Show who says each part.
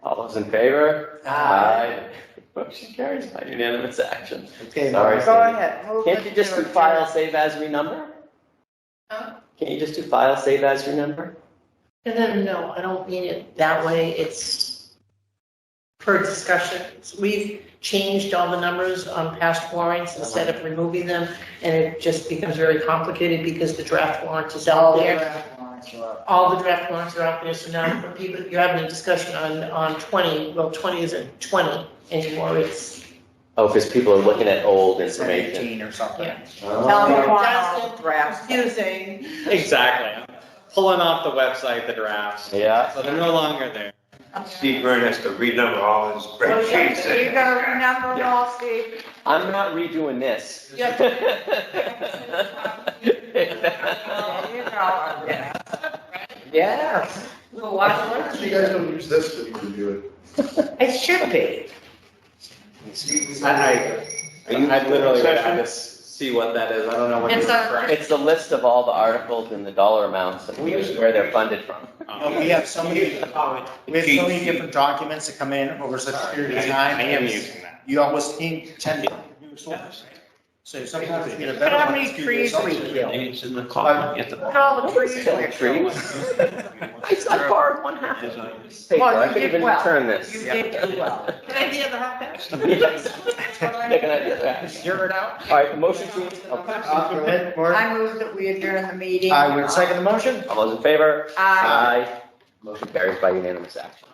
Speaker 1: those in favor?
Speaker 2: Ah,
Speaker 3: Aye.
Speaker 1: Motion carries by unanimous action.
Speaker 3: Okay,
Speaker 1: Sorry.
Speaker 3: Mark.
Speaker 4: Go ahead. move
Speaker 1: Can't you
Speaker 4: it
Speaker 1: just
Speaker 4: to
Speaker 1: do
Speaker 4: adjourn.
Speaker 1: file, save as, renumber?
Speaker 4: Huh?
Speaker 1: Can't you just do file, save as, renumber?
Speaker 4: And then, no, I don't mean it that way. It's per discussion. We've changed all the numbers on past warrants instead of removing them. And it just becomes very complicated because the draft warrant is out
Speaker 3: All the
Speaker 4: there.
Speaker 3: draft warrants are up.
Speaker 4: all the draft warrants are out there, so now when people, you're having a discussion on, on twenty, well, twenty isn't twenty anymore, it's.
Speaker 1: Oh, because people are looking at old information.
Speaker 3: Seventeen or something.
Speaker 4: Yeah.
Speaker 1: Oh.
Speaker 4: me why all
Speaker 3: Justin, draft.
Speaker 4: Confusing.
Speaker 5: Exactly. Pulling off the website, the drafts.
Speaker 1: Yeah.
Speaker 5: So they're no longer there.
Speaker 6: Steve Byrne has to renumber all his
Speaker 4: Well, yeah,
Speaker 6: spreadsheets.
Speaker 4: so
Speaker 6: and-
Speaker 4: you
Speaker 3: You're gonna remember it all, Steve.
Speaker 1: I'm not redoing this.
Speaker 4: Yeah.
Speaker 3: There you go.
Speaker 1: Yeah.
Speaker 4: Well, why
Speaker 7: You guys don't use this to review
Speaker 3: It should be.
Speaker 5: I, I, I literally would have to s- see what that is. I don't know what you're
Speaker 4: It's a-
Speaker 5: referring
Speaker 1: It's the list of all the articles and the dollar amounts and where they're funded from.
Speaker 5: to.
Speaker 2: Oh, We have so many, we have so many different documents that come in over such a period of time.
Speaker 5: I am using that.
Speaker 2: You almost need ten different new sources. So sometimes you need a better
Speaker 3: How
Speaker 2: one.
Speaker 3: many
Speaker 2: to do
Speaker 3: trees
Speaker 2: this.
Speaker 3: we killed?
Speaker 6: It's in the column at the
Speaker 3: Look at all the
Speaker 1: Nobody's
Speaker 3: trees
Speaker 1: killing
Speaker 3: we're
Speaker 1: trees. I I borrowed one half of
Speaker 6: Design.
Speaker 1: this paper.
Speaker 3: Well,
Speaker 1: I
Speaker 3: you
Speaker 1: could
Speaker 3: did
Speaker 1: even
Speaker 3: well.
Speaker 1: return this.
Speaker 3: You did do well.
Speaker 4: Can I be in the hot patch?
Speaker 1: Yes. They're gonna do that.
Speaker 2: Zero it out.
Speaker 1: All right, motion to, oh,
Speaker 2: Uh, go ahead, Mark.
Speaker 3: I move that we adjourn the meeting.
Speaker 2: I would second the motion.
Speaker 1: all those in favor?
Speaker 3: Aye.
Speaker 1: Motion carries by unanimous action.